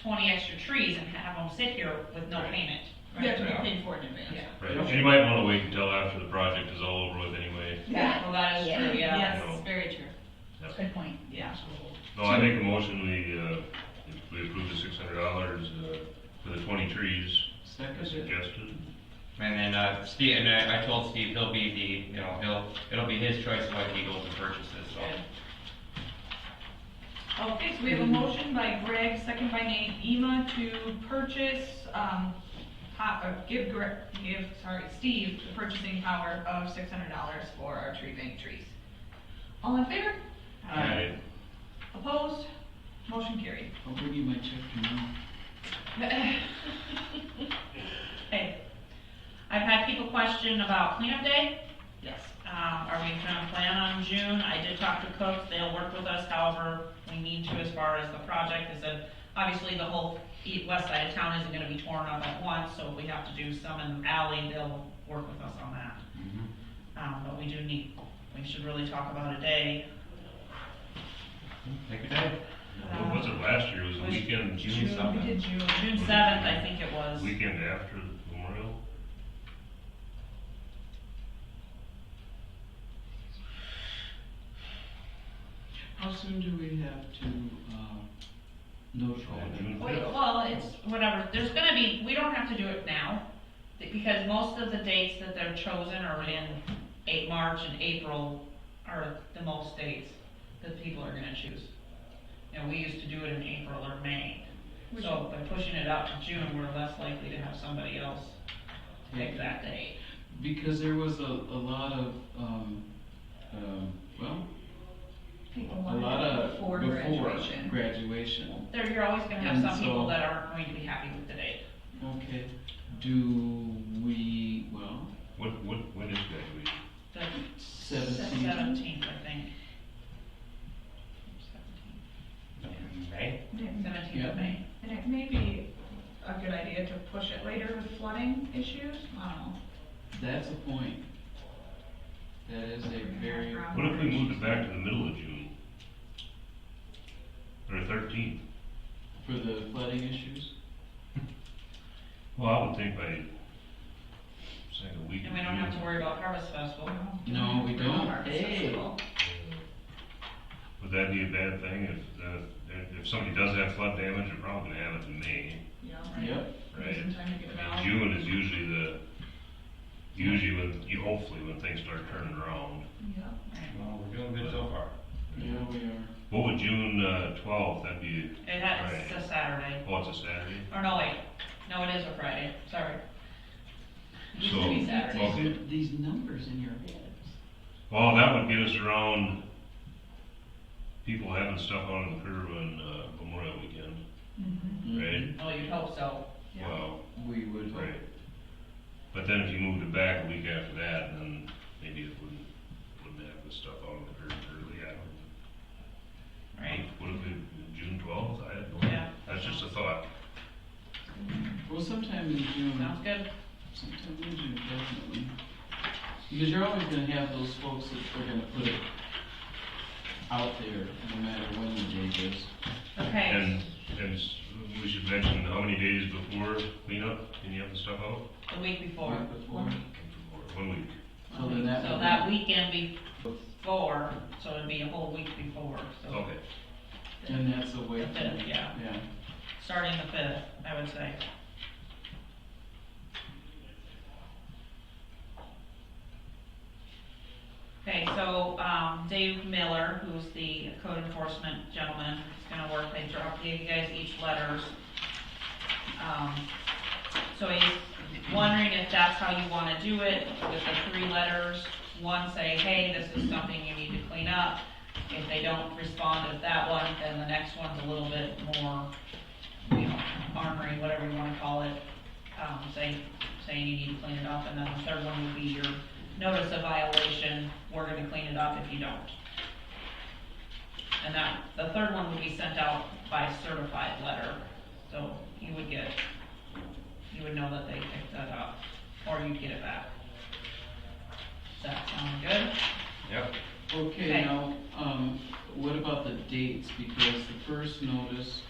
twenty extra trees and have them sit here with no payment. You have to be Right. paid for it in advance. Yeah. Right, and you might wanna wait until after the project is all over with anyway. Yeah. Well, that is Yeah. true, yeah, Yes. that's very true. Yep. Good point. Yeah. So, No, I make a motion, we, uh, we approve the six hundred dollars, uh, for the twenty trees as Second. suggested. And then, uh, Steve, and I, I told Steve, he'll be the, you know, he'll, it'll be his choice of what he goes and purchases, so. Okay, so we have a motion by Greg, second by Nate Ema to purchase, um, po- or give Greg, give, sorry, Steve the purchasing power of six hundred dollars for our tree bank trees. All in favor? Aye. Opposed? Motion carried. I'll bring you my check tomorrow. Okay. I've had people question about cleanup day. Yes. Um, are we gonna plan on June? I did talk to Cook, they'll work with us however we need to as far as the project. They said, obviously, the whole east, west side of town isn't gonna be torn up at once, so if we have to do some in the alley, they'll work with us on that. Um, but we do need, we should really talk about a day. Take your time. What Um, was it last year, It was the Was weekend, June We something. did June. June seventh, I think it was. weekend after Memorial? How soon do we have to, uh, notify Oh, them? June Wait, fifth? Well, it's whatever, there's gonna be, we don't have to do it now, th- because most of the dates that they're chosen are in eight, March and April are the most dates that people are gonna choose. And we used to do it in April or May, Which- so by pushing it out to June, we're less likely to have somebody else pick that date. Because there was a, a lot of, um, um, well, People a wanted lot it of. before Before graduation. graduation, There, you're always gonna have And some people so- that aren't going to be happy with the date. okay. Do we, well, What, what, when is graduation? The seventeen, Seventeenth, I think. May? Seventeenth Yeah. of May. And it may be a good idea to push it later with flooding issues, I don't know. that's a point. That is a very. What if we moved it back to the middle of June? Or thirteenth? For the flooding issues? Well, I would think by, second week. And we don't have to worry about Harvest Festival. Mm-hmm. No, we don't. Harvest Hey. Festival. Would that be a bad thing if, the- if somebody does have flood damage, they're probably gonna have it in May, Yeah, Yep, right? Some time to get it I out. mean, June is usually the, usually when, you- hopefully when things start turning around. Yeah. Well, we're doing good so far. yeah, we are. What would June uh, twelfth, that'd be, It has, it's a Saturday, oh, it's a Saturday? or no, wait, no, it is a Friday, sorry. It Used to be So- Saturday. Okay. These numbers in your head. Well, that would get us around people having stuff out on the curb on uh, Memorial Weekend, Mm-hmm. right? Well, you'd hope so. Yeah. Well, We would hope. right. But then if you moved it back a week after that, then maybe it wouldn't, wouldn't have the stuff out on the curb early, I don't. Right. What if it, June twelfth, I had no Yeah. idea, that's just a thought. Well, sometime in June, Sounds good. sometime in June, definitely. Because you're always gonna have those folks that are gonna put it out there, no matter when the date is. Okay, And, and s- we should mention how many days before cleanup, can you have the stuff out? the week before. Right Before, One week, so then that So would that be, weekend before, so it'd be a whole week before, so. okay. and that's a way. The fifth, yeah. Yeah, Starting the fifth, I would say. Okay, so, um, Dave Miller, who's the code enforcement gentleman, is gonna work, they dropped, gave you guys each letters. Um, so he's wondering if that's how you wanna do it, with the three letters, one say, hey, this is something you need to clean up. If they don't respond with that one, then the next one's a little bit more you know, armory, whatever you wanna call it, um, saying, saying you need to clean it up, and then the third one would be your notice of violation, we're gonna clean it up if you don't. And that, the third one would be sent out by certified letter, so you would get, you would know that they picked that up, or you'd get it back. Does that sound good? Yep. okay, Okay. now, um, what about the dates, because the first notice